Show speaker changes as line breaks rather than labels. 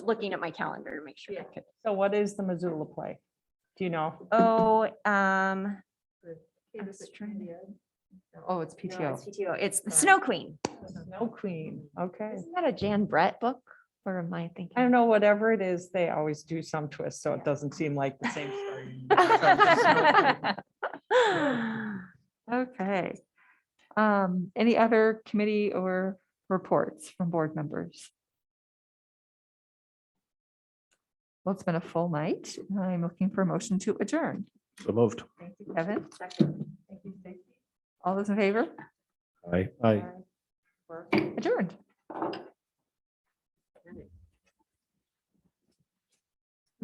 looking at my calendar to make sure. I
Yeah.
could-
So what is the Missoula play? Do you know?
Oh, um,
Hey,
I'm
this is
just trying to-
Indian.
Oh, it's
no, it's
PTO.
PTO. It's the
Sorry.
Snow Queen.
Snow Queen, okay.
Isn't that a Jan Brett book? Or am I thinking?
I don't know, whatever it is, they always do some twist, so it doesn't seem like the same story.
Okay. Um, any other committee or reports from board members? Well, it's been a full night. I'm looking for a motion to adjourn.
So moved.
Thank you.
Kevin?
Second. Thank you, Stacy.
All those in favor?
Aye. Aye.
Adjourned.